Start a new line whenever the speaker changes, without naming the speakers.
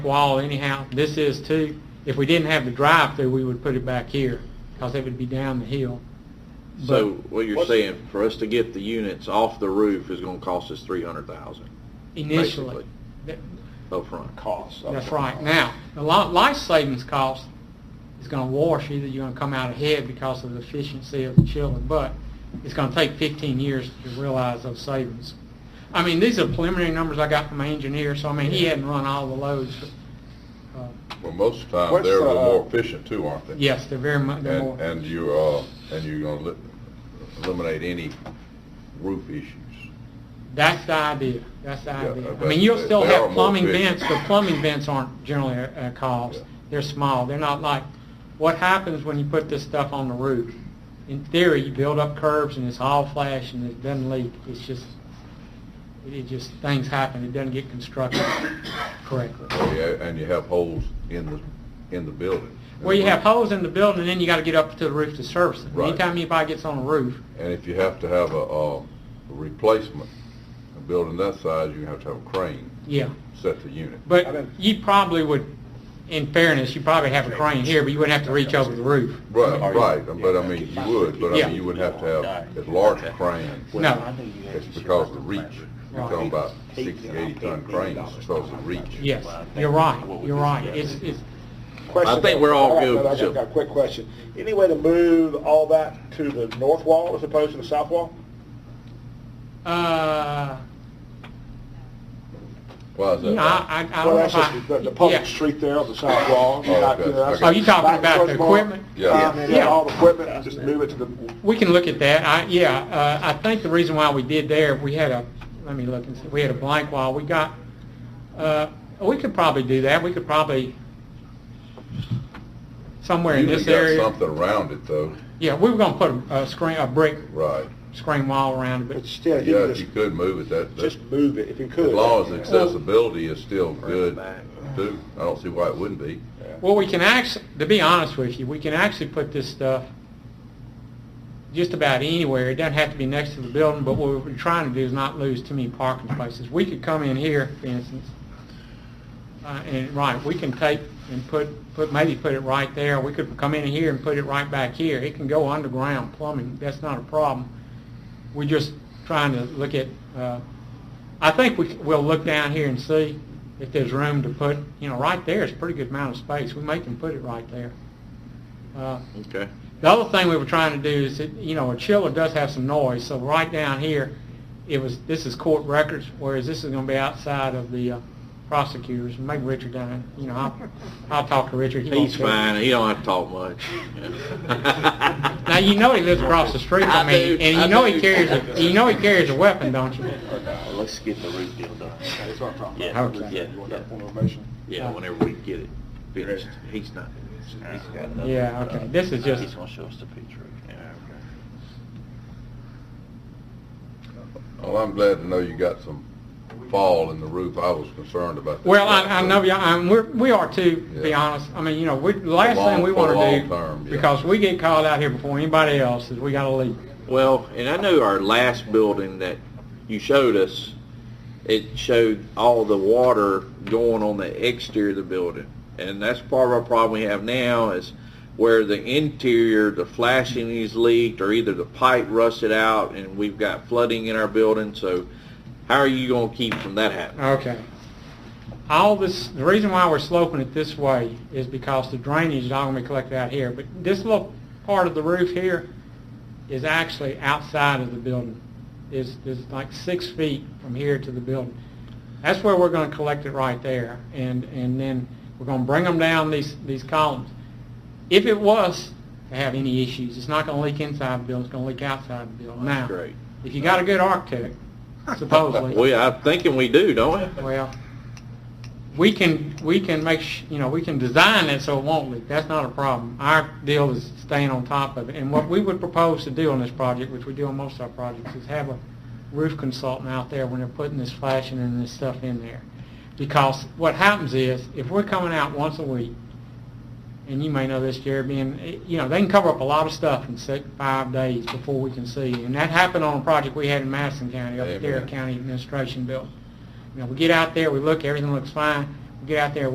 wall anyhow. This is too. If we didn't have the drive-through, we would put it back here because it would be down the hill.
So what you're saying, for us to get the units off the roof is gonna cost us three hundred thousand
Initially, Th-
upfront.
costs.
that's right. Now, the li- life savings cost is going to wash. Either you're going to come out ahead because of the efficiency of the children, but it's going to take 15 years to realize those savings. I mean, these are preliminary numbers I got from my engineer, so I mean, he hadn't run all the loads. But, uh,
Well, most of the time,
What's
they're a little
the, uh,
more efficient too, aren't they?
yes, they're very much. They're
And,
more,
and you, uh, and you're gonna li- eliminate any roof issues.
That's the idea, that's the
Yeah,
idea. I
but
mean, you'll
they-
still
they
have
are more
plumbing
efficient.
vents, the plumbing vents aren't generally a a cost.
Yeah.
They're small, they're not like, what happens when you put this stuff on the roof? In theory, you build up curves and it's all flash and it doesn't leak, it's just, it just, things happen, it doesn't get constructed correctly.
Oh, yeah, And you have holes in the, in the building.
Well, you have holes in the building and then you gotta get up to the roof to service it.
Right.
Anytime anybody gets on a roof,
And if you have to have a, uh, replacement, a building that size, you have to have a crane
yeah.
set the unit.
I
But
didn't-
you probably would, in fairness, you probably have a crane here, but you wouldn't have to reach over the roof.
Right, right, but I mean, you would, but I
Yeah.
mean, you would have to have as large a crane.
No.
It's because of the reach. You're talking about 60, 80 ton cranes because of reach.
Yes, you're right, you're right. It's, it's,
Question.
I think we're all
I got-
good,
I
so-
got, got a quick question. Any way to move all that to the north wall as opposed to the south wall?
uh,
Why is
you
that?
know, I, I
Well,
I don't know
that's
if I.
just the, the public
yeah.
street there on the south wall.
Oh,
Not-
okay,
you know, that's-
okay.
Oh, you talking about the
Much more,
equipment?
Yeah.
um,
Yeah.
all the equipment, just move it to the,
We can look at that. I, yeah, uh, I think the reason why we did there, we had a, let me look and see, we had a blank wall. We got, uh, we could probably do that. We could probably, somewhere in
Usually
this
got
area.
something around it though,
Yeah, we were gonna put a- a screen, a brick
right.
screen wall around it,
but
but
still, if you
Yeah,
could
if you
just,
could move it, that, that-
just move it if you could.
as long as the accessibility is still good, do, I don't see why it wouldn't be.
Well, we can actually, to be honest with you, we can actually put this stuff just about anywhere. It doesn't have to be next to the building, but what we're trying to do is not lose too many parking spaces. We could come in here, for instance, uh, and, right, we can take and put, put, maybe put it right there. We could come in here and put it right back here. It can go underground plumbing, that's not a problem. We're just trying to look at, uh, I think we, we'll look down here and see if there's room to put, you know, right there is a pretty good amount of space. We may can put it right there. Uh,
Okay.
The other thing we were trying to do is that, you know, a chiller does have some noise, so right down here, it was, this is court records, whereas this is gonna be outside of the uh, prosecutors. Maybe Richard done it, you know, I'll, I'll talk to Richard. He won't
He's
do it.
fine, he don't have to talk much.
Now, you know he lives across the street
I
from me,
do,
and
I
you know he
do.
carries, a you know he carries a weapon, don't you?
Uh, Let's get the root deal done.
That's what I'm talking
Yeah,
about.
yeah,
You want
yeah.
that form of motion?
Yeah, whenever we get it finished, he's not.
He's got another-
Yeah, okay, this is
uh, He's
just,
gonna show us the picture.
Well, I'm glad to know you got some fall in the roof. I was concerned about that.
well, I, I know, y'all- I'm, we're, we are too, to be
Yeah.
honest. I mean, you know, we, the last
long-
thing we
for
wanna
long term,
do,
yeah.
because we get called out here before anybody else, is we gotta leave.
Well, and I know our last building that you showed us, it showed all the water going on the exterior of the building. And that's part of our problem we have now is where the interior, the flashing is leaked or either the pipe rusted out and we've got flooding in our building. So how are you going to keep from that happening?
Okay. All this, the reason why we're sloping it this way is because the drainage is all gonna be collected out here, but this little part of the roof here is actually outside of the building. Is, is like six feet from here to the building. That's where we're gonna collect it right there, and, and then we're gonna bring them down these, these columns. If it was to have any issues, it's not gonna leak inside the building, it's gonna leak outside the building. Now,
Great.
if you got a good architect, supposedly.
We, I'm thinking we do, don't we?
Well, we can, we can make, sh- you know, we can design it so it won't leak. That's not a problem. Our deal is staying on top of it. And what we would propose to do on this project, which we do on most of our projects, is have a roof consultant out there when they're putting this flashing and this stuff in there. Because what happens is, if we're coming out once a week, and you may know this, Jerry, being, eh, you know, they can cover up a lot of stuff in six, five days before we can see. And that happened on a project we had in Madison County, up at their
Amen.
county administration building. You know, we get out there, we look, everything looks fine. We get out there,